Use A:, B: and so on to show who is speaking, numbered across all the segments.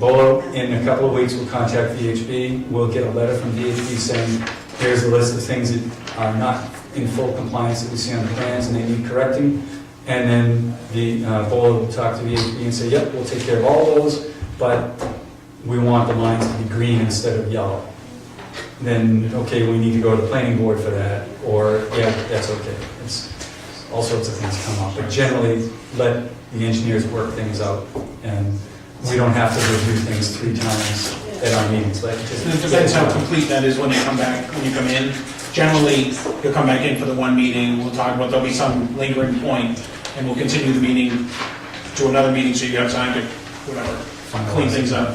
A: Bolo, in a couple of weeks, will contact VHB. We'll get a letter from VHB saying, here's a list of things that are not in full compliance that we see on the plans and they need correcting. And then the uh, Bolo will talk to VHB and say, yep, we'll take care of all those, but we want the lines to be green instead of yellow. Then, okay, we need to go to the planning board for that, or, yeah, that's okay. It's, all sorts of things come up, but generally, let the engineers work things out and we don't have to review things three times at our meetings, like. just-
B: It depends how complete that is when they come back, when you come in. Generally, you'll come back in for the one meeting, we'll talk about, there'll be some lingering point, and we'll continue the meeting to another meeting, so you have time to, whatever, clean things up.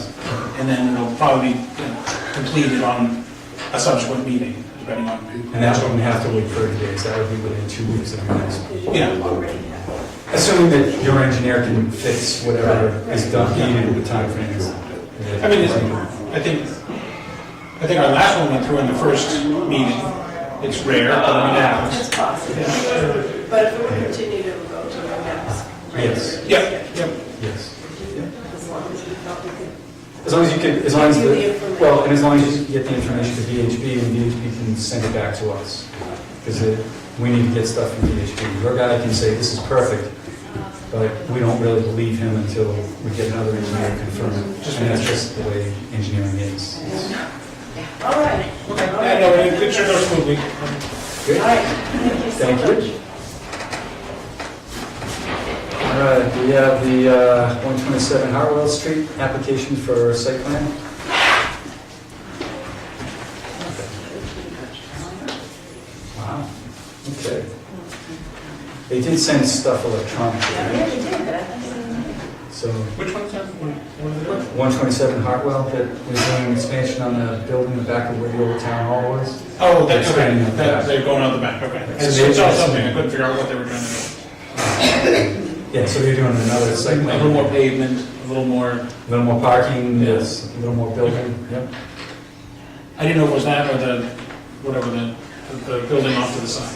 B: And then it'll probably be you know, completed on a subsequent meeting, depending on.
A: And that wouldn't have to wait 30 days, that would be within two weeks of our next meeting.
B: Yeah,
A: Assuming that your engineer can fix whatever is done, needed with the timeframes.
B: I mean, it's, I think, I think our last one went through in the first meeting. It's rare, but we have.
C: It's possible, but if we continue to go to the next.
A: Yes.
B: Yep, yep.
A: Yes.
C: As long as we thought we could.
A: As long as you can, as long as,
C: Give you the
A: the
C: information.
A: well, and as long as you get the information to VHB and VHB can send it back to us. Because we need to get stuff from VHB. Your guy can say, this is perfect, but we don't really believe him until we get another engineer to confirm it. And that's just the way engineering is.
C: All right.
B: Okay, I know, it it should go smoothly.
C: All right, thank you so
A: Thank
C: much.
A: you. All right, we have the uh, 127 Hartwell Street application for site plan. Wow, okay. They did send stuff
C: Yeah,
A: electronically,
C: yeah, you did, but I thought
A: so
B: Which one's that? One- one of the-
A: 127 Hartwell that was doing an expansion on the building in the back of where the old town hall was.
B: Oh, that's okay,
A: Expanding the back.
B: That- they're going out the back, okay.
A: So
B: It's
A: they-
B: it's all something, I couldn't figure out what they were trying to do.
A: Yeah, so they're doing another
B: A
A: site plan.
B: little more pavement, a little more,
A: A little more parking,
B: Yes.
A: yes, a little more building, yep.
B: I didn't know it was that or the, whatever, the, the building off to the side.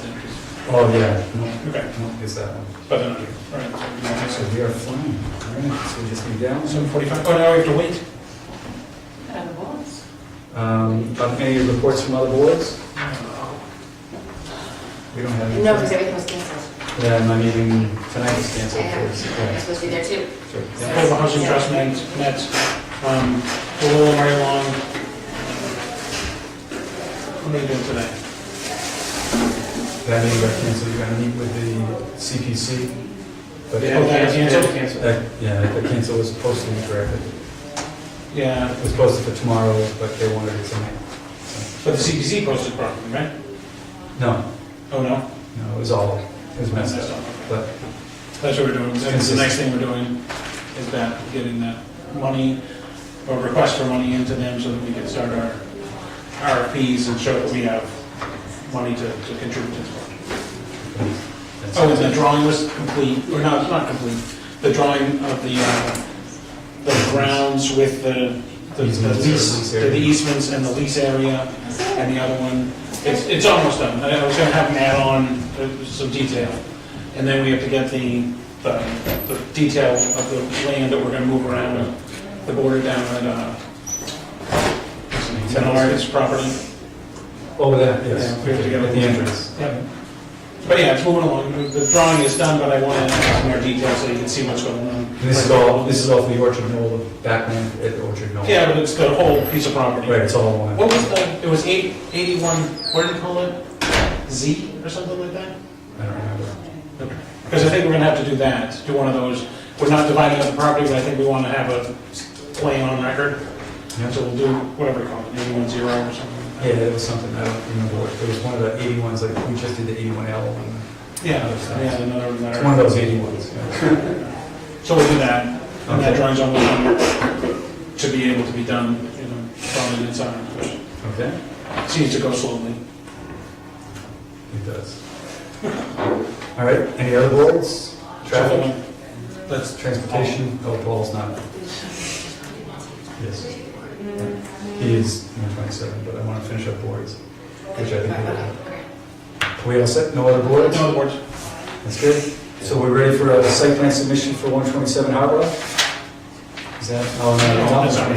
A: Oh, yeah,
B: Okay,
A: no, no, it's that one.
B: but then, all right. so we don't have
A: So
B: to-
A: we are flying, all right, so we just need down.
B: Seven forty-five, oh, now we have to wait.
C: I had a voice.
A: Um, but any reports from other boards? We don't have any.
D: No, because everything was canceled.
A: Yeah, my meeting tonight is canceled,
D: And
A: please.
D: it's supposed to be there too.
A: Yeah.
B: Affordable Housing Trust met, met, um, Lola Mary Long. What are they doing today?
A: That meeting got canceled, you're gonna meet with the CPC. but-
B: Yeah, that canceled?
A: That- Yeah, the cancel was posted incorrectly.
B: Yeah,
A: It was posted for tomorrow, but they wanted it tonight. So-
B: but the CPC posted properly, right?
A: No,
B: Oh, no?
A: no, it was all, it was messed up, but
B: That's what we're doing, that's the next thing we're doing, is that, getting that money, or request for money into them so that we can start our RFPs and show that we have money to, to contribute to this project.
A: that's.
B: Oh, and the drawing was complete, or no, it's not complete, the drawing of the, uh, the grounds with the, the the
A: Easements or
B: lease,
A: lease
B: the
A: area.
B: easements and the lease area, and the other one, it's, it's almost done, I was gonna have them add on uh, some detail. And then we have to get the, the, the detail of the land that we're gonna move around, uh, the border down at, uh, Menards property.
A: Oh, that, yes.
B: Yeah, we have to get
A: At the entrance.
B: Yeah. But yeah, it's moving along, The- the drawing is done, but I wanna add some more details so you can see what's going on.
A: And This is all, this is all for the Orchard Knoll, the backland at Orchard Knoll.
B: Yeah, but it's the whole piece of property.
A: Right, it's all one.
B: What was the, it was eight, eighty-one, what did you call it? Z or something like that?
A: I don't remember.
B: Because I think we're gonna have to do that, do one of those, we're not dividing up the property, but I think we wanna have a plan on record.
A: Yeah.
B: So we'll do whatever we call it, eighty-one zero or something.
A: Yeah, that was something, I don't remember what, it was one of the eighty ones, like, we just did the eighty-one L one.
B: Yeah, yeah, another
A: It's one of
B: letter.
A: those eighty ones. yeah.
B: So we'll do that, and that
A: Okay.
B: drawing's on the line to be able to be done, you know, probably in time.
A: Okay?
B: Seems to go slowly.
A: It does. All right, any other boards? Traffic,
B: That's,
A: transportation, oh, Paul's not. Yes. He is number twenty-seven, but I want to finish up boards, which I think we will. We all set, no other boards?
B: no words.
A: That's good. So we're ready for a site plan submission for 127 Harbor? Is Is that how I'm gonna
B: No,
A: tell
B: that's
A: them?
B: not